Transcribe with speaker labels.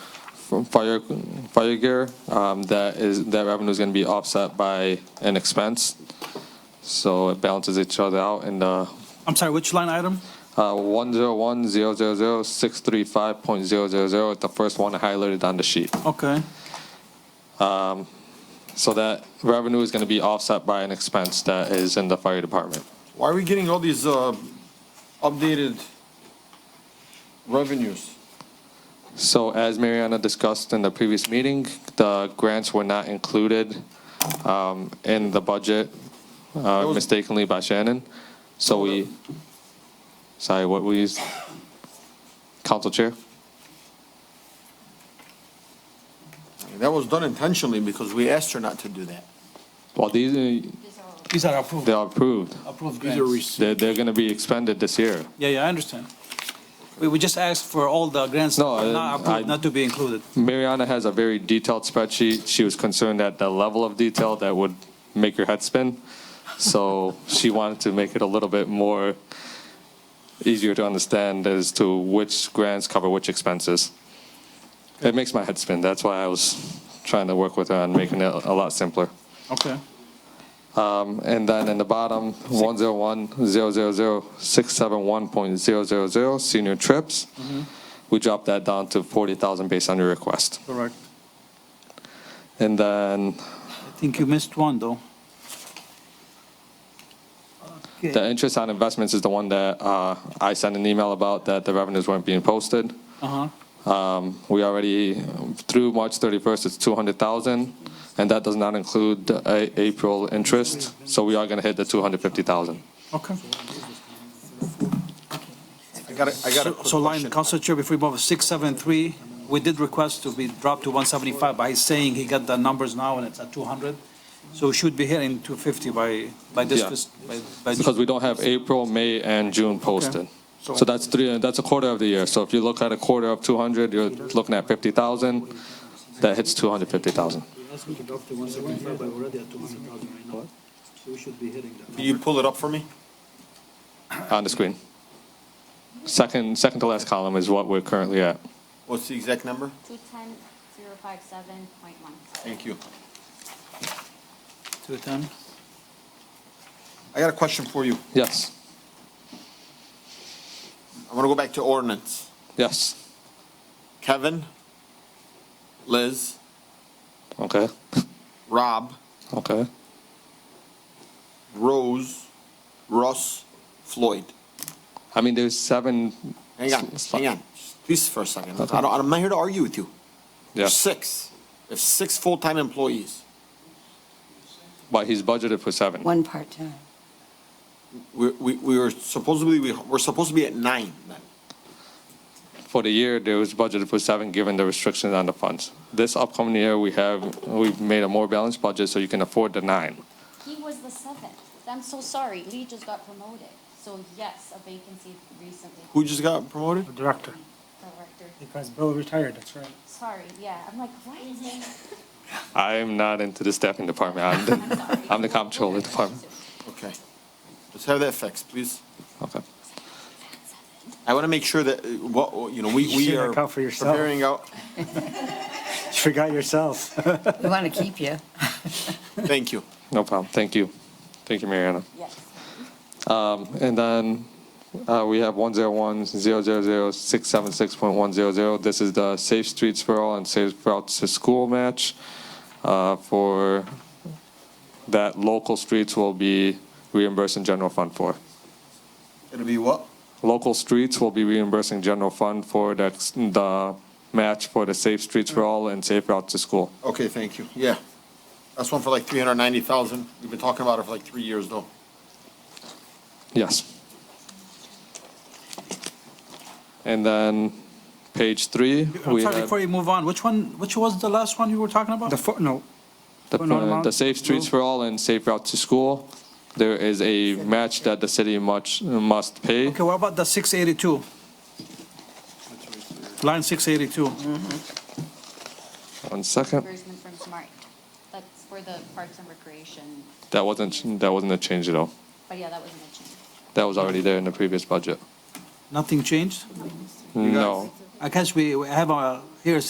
Speaker 1: from fire, fire gear, um, that is, that revenue is gonna be offset by an expense. So it balances each other out and, uh,
Speaker 2: I'm sorry, which line item?
Speaker 1: uh, one zero one zero zero zero six three five point zero zero zero, the first one highlighted on the sheet.
Speaker 2: Okay,
Speaker 1: So that revenue is gonna be offset by an expense that is in the fire department.
Speaker 3: Why are we getting all these uh, updated revenues?
Speaker 1: So as Mariana discussed in the previous meeting, the grants were not included um, in the budget uh,
Speaker 3: was-
Speaker 1: mistakenly by Shannon. So we, sorry, what we used? Council Chair?
Speaker 3: That was done intentionally because we asked her not to do that.
Speaker 1: Well, these, are-
Speaker 2: these are approved,
Speaker 1: they are approved.
Speaker 2: approved
Speaker 3: These are
Speaker 2: grants.
Speaker 3: receipts.
Speaker 1: They're, they're going to be expended this year.
Speaker 2: Yeah, yeah, I understand. We, we just asked for all the grants
Speaker 1: No, I- I-
Speaker 2: not approved, not to be included.
Speaker 1: Mariana has a very detailed spreadsheet. She was concerned at the level of detail that would make her head spin. So she wanted to make it a little bit more easier to understand as to which grants cover which expenses. It makes my head spin. That's why I was trying to work with her on making it a lot simpler.
Speaker 2: Okay.
Speaker 1: And then in the bottom, 101,000,671.000, senior trips. We dropped that down to 40,000 based on your request.
Speaker 2: Correct.
Speaker 1: And then
Speaker 2: I think you missed one, though.
Speaker 1: the interest on investments is the one that uh, I sent an email about that the revenues weren't being posted.
Speaker 2: Uh-huh,
Speaker 1: Um, We already, through March 31st, it's 200,000, and that does not include the A- April interest, so we are going to hit the 250,000.
Speaker 2: okay.
Speaker 3: I got a, I got a
Speaker 2: So- So line,
Speaker 3: quick question.
Speaker 2: Council Chair, before we move, 673, we did request to be dropped to 175, but he's saying he got the numbers now and it's at 200. So we should be hitting 250 by, by this,
Speaker 1: Yeah.
Speaker 2: fis- by- by
Speaker 1: Because we don't have April, May, and June posted. So that's three, that's a quarter of the year. So if you look at a quarter of 200, you're looking at 50,000, that hits 250,000.
Speaker 4: Ask me to drop to one seventy-five, but we're already at two hundred thousand right now. So we should be hitting that.
Speaker 3: Can you pull it up for me?
Speaker 1: on the screen. Second, second to last column is what we're currently at.
Speaker 3: What's the exact number?
Speaker 5: 210057.1.
Speaker 3: Thank you.
Speaker 2: 210.
Speaker 3: I got a question for you.
Speaker 1: Yes,
Speaker 3: I want to go back to ordinance.
Speaker 1: yes,
Speaker 3: Kevin, Liz,
Speaker 1: okay,
Speaker 3: Rob,
Speaker 1: okay,
Speaker 3: Rose, Russ, Floyd.
Speaker 1: I mean, there's seven.
Speaker 3: Hang on,
Speaker 1: s-
Speaker 3: hang on. Please for a second. I don't, I'm not here to argue with you.
Speaker 1: Yeah,
Speaker 3: Six. If six full-time employees.
Speaker 1: but he's budgeted for seven.
Speaker 6: One part-time.
Speaker 3: We, we, we were supposedly, we, we're supposed to be at nine then.
Speaker 1: For the year, there was budgeted for seven, given the restrictions on the funds. This upcoming year, we have, we've made a more balanced budget, so you can afford the nine.
Speaker 5: He was the seventh. I'm so sorry, Lee just got promoted. So yes, a vacancy recently.
Speaker 3: Who just got promoted?
Speaker 7: Director,
Speaker 5: Director,
Speaker 7: because Bill retired, that's right.
Speaker 5: sorry, yeah, I'm like, what?
Speaker 1: I am not into the staffing department, I'm the, I'm the comptroller department,
Speaker 3: Okay. Let's have that fixed, please.
Speaker 1: okay.
Speaker 3: I want to make sure that, uh, what, you know, we,
Speaker 7: You
Speaker 3: we
Speaker 7: should
Speaker 3: are
Speaker 7: account for yourself.
Speaker 3: preparing out,
Speaker 7: You forgot yourself.
Speaker 6: We want to keep you.
Speaker 3: thank you.
Speaker 1: No problem, thank you, thank you, Mariana.
Speaker 5: Yes.
Speaker 1: And then uh, we have 101-000-676.100. This is the Safe Streets for All and Safe Routes to School match. uh, For that local streets will be reimbursing general fund for.
Speaker 3: It'll be what?
Speaker 1: Local streets will be reimbursing general fund for the, the match for the Safe Streets for All and Safe Routes to School.
Speaker 3: Okay, thank you. Yeah. That's one for like 390,000. We've been talking about it for like three years though.
Speaker 1: Yes. And then page three,
Speaker 2: I'm
Speaker 1: we
Speaker 2: sorry,
Speaker 1: have
Speaker 2: before you move on, which one, which was the last one you were talking about?
Speaker 7: The footnote,
Speaker 1: The,
Speaker 7: Well, not
Speaker 1: plan-
Speaker 7: amount-
Speaker 1: the Safe Streets for All and Safe Route to School, there is a match that the city much, must pay.
Speaker 2: Okay, what about the 682? Line 682.
Speaker 1: One second,
Speaker 5: Reimbursement from Smart. That's for the Parks and Recreation,
Speaker 1: that wasn't, that wasn't a change at all.
Speaker 5: but yeah, that wasn't a change.
Speaker 1: That was already there in the previous budget.
Speaker 2: Nothing changed?
Speaker 1: No.
Speaker 2: I guess we we have a, here's